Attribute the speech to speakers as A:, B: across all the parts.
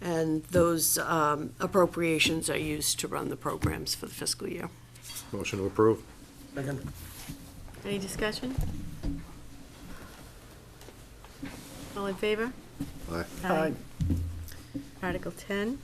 A: And those um, appropriations are used to run the programs for the fiscal year.
B: Motion to approve.
C: Second.
D: Any discussion? All in favor?
B: Aye.
C: Aye.
D: Article 10,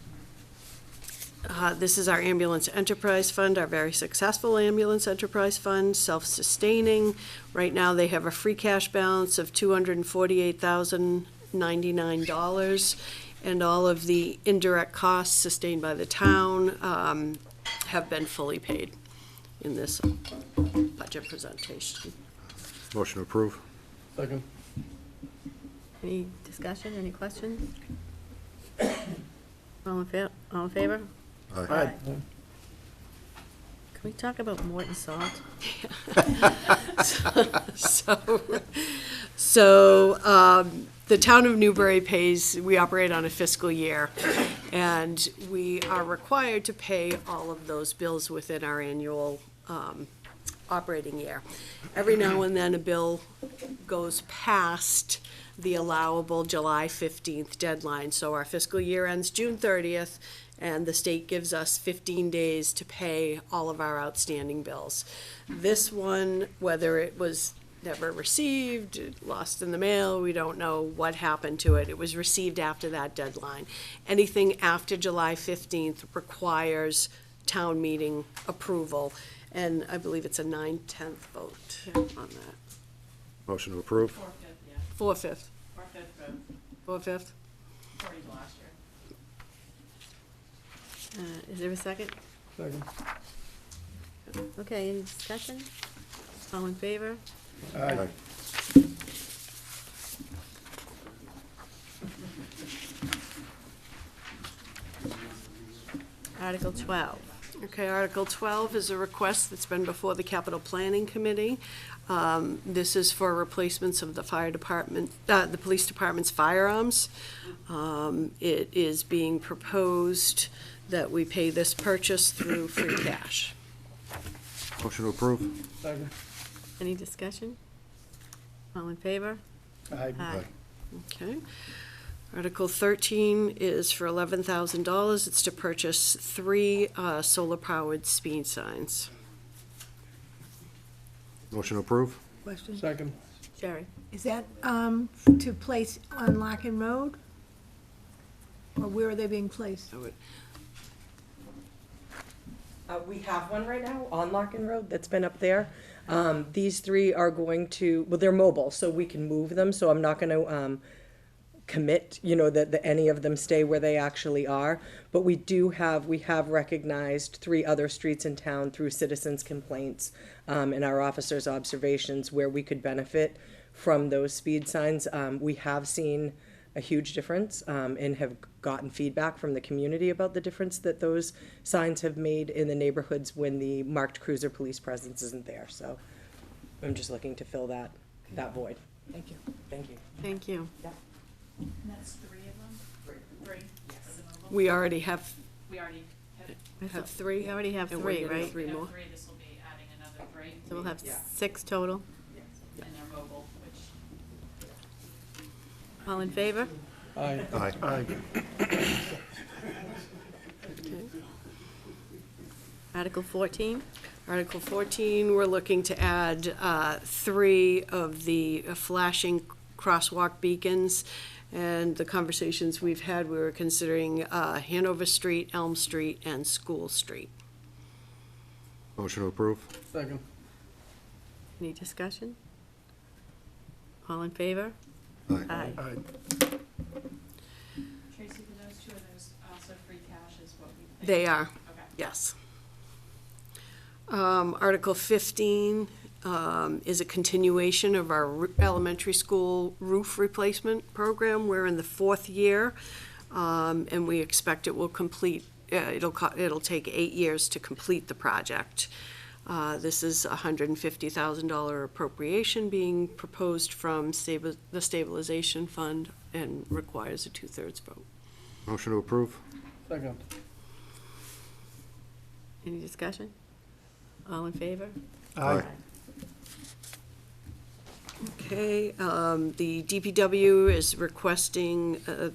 A: Uh, This is our ambulance enterprise fund, our very successful ambulance enterprise fund, self-sustaining. Right now, they have a free cash balance of $248,099, and all of the indirect costs sustained by the town um, have been fully paid in this budget presentation.
B: Motion to approve.
C: Second.
D: any discussion, any questions? All in fa, all in favor?
C: Aye.
D: Can we talk about Morton Salt?
A: So, so um, the town of Newbury pays, we operate on a fiscal year, and we are required to pay all of those bills within our annual um, operating year. Every now and then, a bill goes past the allowable July 15th deadline, so our fiscal year ends June 30th, and the state gives us 15 days to pay all of our outstanding bills. This one, whether it was never received, lost in the mail, we don't know what happened to it. It was received after that deadline. Anything after July 15th requires town meeting approval, and I believe it's a nine-tenth vote on that.
B: Motion to approve.
E: Four-fifth, yeah,
A: Four-fifth,
E: four-fifth of
A: four-fifth.
E: forty last year.
D: Uh, Is there a second?
C: Second.
D: Okay, any discussion? All in favor?
C: Aye.
D: Article 12,
A: Okay, Article 12 is a request that's been before the Capital Planning Committee. Um, This is for replacements of the fire department, uh, the police department's firearms. Um, It is being proposed that we pay this purchase through free cash.
B: Motion to approve.
C: Second.
D: any discussion? All in favor?
C: Aye.
D: Aye.
A: Okay. Article thirteen is for eleven thousand dollars. It's to purchase three uh, solar-powered speed signs.
B: Motion to approve.
F: Question.
C: Second.
D: Sherry?
F: Is that um, to place on Locken Road? Or where are they being placed?
A: I would-
G: Uh, we have one right now on Locken Road that's been up there. Um, these three are going to, well, they're mobile, so we can move them, so I'm not gonna, um, commit, you know, that, that any of them stay where they actually are. But we do have, we have recognized three other streets in town through citizens' complaints, um, and our officers' observations where we could benefit from those speed signs. Um, we have seen a huge difference, um, and have gotten feedback from the community about the difference that those signs have made in the neighborhoods when the marked cruiser police presence isn't there, so I'm just looking to fill that, that void. Thank you. Thank you.
D: Thank you.
E: And that's three of them? Three. Three, yes.
A: We already have,
E: We already have, we
A: have
D: I thought-
A: three.
D: We already have
A: and we're
D: three,
A: getting
D: right?
A: Three more.
E: have three, this will be adding another three.
D: So we'll have
E: Yeah.
D: six total.
E: And they're mobile, which
D: All in favor?
C: Aye.
B: Aye.
C: Aye.
D: Article 14,
A: Article 14, we're looking to add uh, three of the flashing crosswalk beacons. And the conversations we've had, we were considering uh, Hanover Street, Elm Street, and School Street.
B: Motion to approve.
C: Second.
D: any discussion? All in favor?
B: Aye.
C: Aye.
E: Tracy, for those two, are those also free cash is what we think?
A: They are.
E: Okay.
A: Yes. Um, Article fifteen, um, is a continuation of our ru- elementary school roof replacement program. We're in the fourth year, um, and we expect it will complete, uh, it'll co- it'll take eight years to complete the project. Uh, this is a hundred and fifty thousand dollar appropriation being proposed from stabi- the stabilization fund and requires a two-thirds vote.
B: Motion to approve.
C: Second.
D: Any discussion? All in favor?
B: Aye.
A: Okay, um, the DPW is requesting, uh,